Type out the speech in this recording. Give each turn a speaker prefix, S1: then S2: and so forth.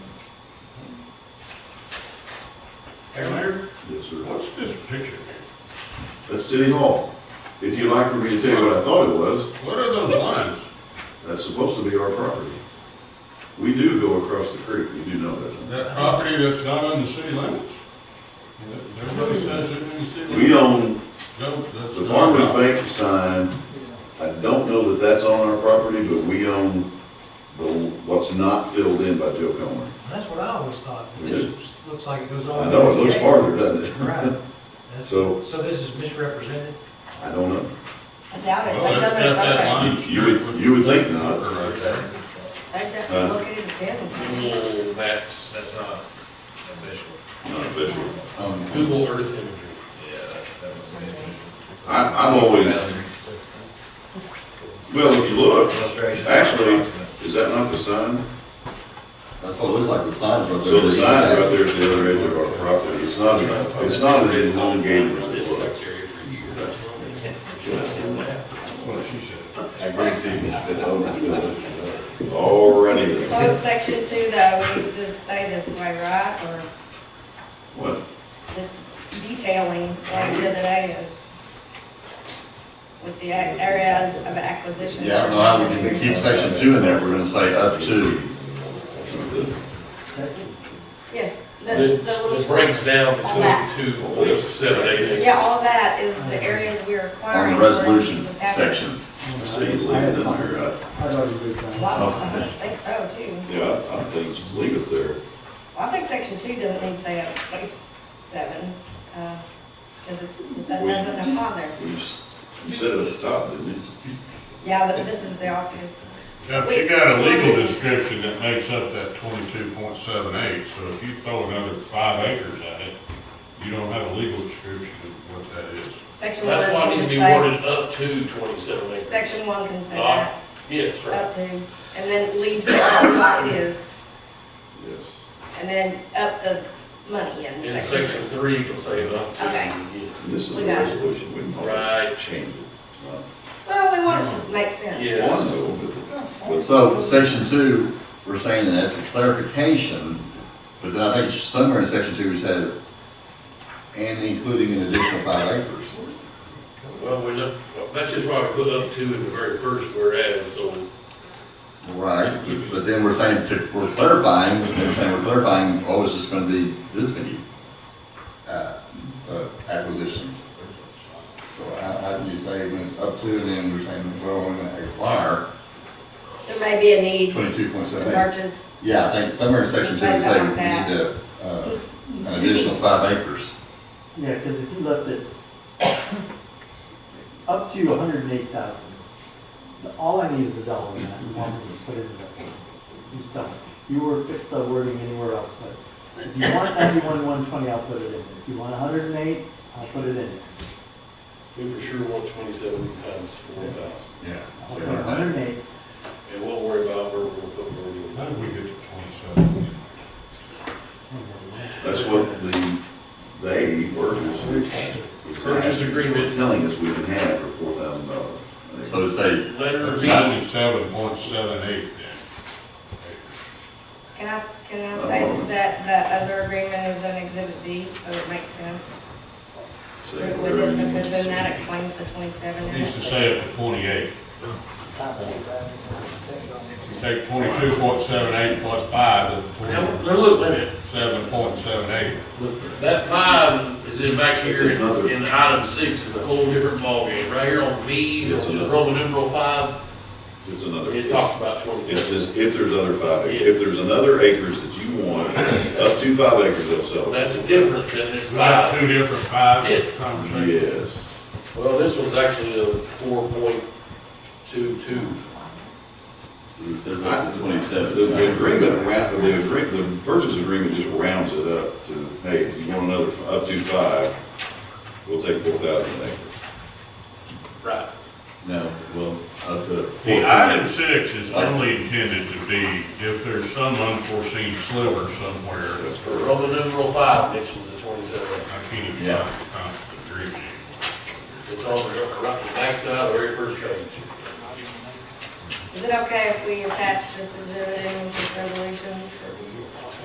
S1: this survey.
S2: What's this picture?
S1: That's City Hall. If you'd like for me to tell you what I thought it was,
S2: What are those lines?
S1: that's supposed to be our property. We do go across the creek, you do know that.
S2: That property that's not on the city limits? Everybody says it's in the city.
S1: We own, the
S2: The
S1: Farmers Bank sign, I don't know that that's on our property, but we own the, what's not filled in by Joe Comer.
S3: That's what I always thought, but
S1: It
S3: this looks like it goes all.
S1: I know, it looks
S3: hard.
S1: farther, doesn't it?
S3: Right. That's-
S1: So-
S3: So this is misrepresented?
S1: I don't know.
S4: I doubt it,
S2: Well,
S4: they've
S2: that's
S4: done
S2: got
S4: their
S2: that
S4: surveys.
S2: line.
S1: You would- you would think not.
S2: Right there.
S4: They've
S1: Huh?
S4: done,
S5: Uh,
S4: look at it, depends.
S6: Google maps, that's not official.
S1: Not official.
S6: Um, Google Earth imagery. Yeah, that- that was official.
S1: I, I've always, well, if you look,
S6: Illustration.
S1: actually, is that not the sign?
S5: That's what it looks like, the sign. but
S1: So the sign is right there at the other edge of our property, it's not, it's not an elongated one, it looks.
S2: What she said.
S1: Alrighty
S4: So
S1: then.
S4: in section two though, it needs to stay this way, right, or
S1: What?
S4: just detailing what exhibit A is? With the a- areas of acquisition.
S5: Yeah, I don't know how we can keep section two in there, we're gonna say up to.
S4: Yes, the,
S6: It
S4: the
S6: it
S4: little,
S6: breaks down
S4: All that.
S6: between two, seven, eight, eight.
S4: yeah, all that is the areas we're
S5: On
S4: requiring.
S5: the
S4: for
S5: resolution
S4: the tax-
S5: section.
S1: I see you leave it in there, I,
S7: I'd like to do that.
S4: A lot of them, I think so too.
S1: yeah, I I think just leave it there.
S4: Well, I think section two doesn't need to say up to place seven, because it's, that
S1: We-
S4: doesn't apply there.
S1: You, s- you said it at the top, didn't you?
S4: Yeah, but this is the option.
S2: Now, she got a legal description that makes up that twenty-two point seven eight, so if you throw another five acres at it, you don't have a legal description of what that is.
S4: Section one
S6: That's why it
S4: can
S6: needs
S4: just
S6: to be
S4: say,
S6: worded up to twenty-seven acres.
S4: section one can say
S6: Ah,
S4: that,
S6: Yes, right.
S4: up to, and then leave section two like it is,
S1: Yes.
S4: and then up the money in
S6: In
S4: section.
S6: section three, you can say it up to.
S4: Okay.
S6: yeah.
S1: And this is
S4: We
S1: a
S4: got it.
S1: resolution, we can always
S6: Right.
S1: change it. It's not
S4: Well, we want it to make sense.
S6: Yeah.
S1: One though, but-
S5: So section two, we're saying that that's a clarification, but then I think somewhere in section two, we said, and including an additional five acres.
S6: Well, we're not, that's just why we put up to in the very first whereas, so
S5: Right, but then we're saying, to- we're clarifying, we're saying we're clarifying, oh, it's just gonna be this many, uh, uh, acquisitions. So how, how do you say when it's up to, then we're saying, well, we're gonna acquire
S4: There may be a need
S5: twenty-two point
S4: to
S5: seven eight?
S4: purchase,
S5: Yeah, I think somewhere in section two,
S4: Say
S5: we say we
S4: something
S5: need
S4: like
S5: to, uh, an additional five acres.
S7: Yeah, because if you left it up to hundred and eight thousand, all I need is a dollar amount, and I'm gonna put it in there. You just don't, you were fixed the wording anywhere else, but if you want ninety-one, one twenty, I'll put it in. If you want hundred and eight, I'll put it in.
S6: we for sure want twenty-seven times four thousand.
S5: Yeah.
S7: I'll put hundred and eight,
S6: And we'll worry about where we're gonna put wording.
S2: How did we get to twenty-seven?
S1: That's what the, they, workers,
S6: Purchase agreement.
S1: telling us we can have for four thousand dollars.
S5: So to say,
S6: Letter B.
S2: Twenty-seven point seven eight then.
S4: can I, can I say that that other agreement is an exhibit B, so it makes sense? Would it, because then that explains the twenty-seven. and
S2: Needs to
S4: the-
S2: say up to twenty-eight. You Take twenty-two point seven eight plus five is
S6: Now, now look, wait a minute.
S2: twenty-seven point seven eight.
S6: That five is in back
S1: It's
S6: here,
S1: another-
S6: and item six is a whole different ballgame. Right here on V,
S1: It's
S6: which is
S1: another-
S6: Roman numeral five,
S1: It's another.
S6: it talks about
S1: It
S6: twenty-seven.
S1: says if there's other five, acres. if there's another acres that you want, up to five acres they'll sell.
S6: That's different than this
S2: We got
S6: five.
S2: two different five
S6: Yes.
S2: conversations.
S1: Yes.
S6: Well, this one's actually a four point two two.
S5: instead
S1: I-
S5: of twenty-seven.
S1: The- The agreement, ra- the agreement, the purchase agreement just rounds it up to, hey, if you want another, f- up to five, we'll take four thousand acres.
S6: Right.
S5: No, well, up to.
S2: The item six is only intended to be if there's some unforeseen sliver somewhere.
S1: That's
S6: For
S1: correct.
S6: Roman numeral five, Mitch was the twenty-seven.
S2: I can't even
S5: Yeah.
S2: find the agreement.
S6: It's on the, right, the backside of the very first page.
S4: Is it okay if we attach this exhibit in with this resolution?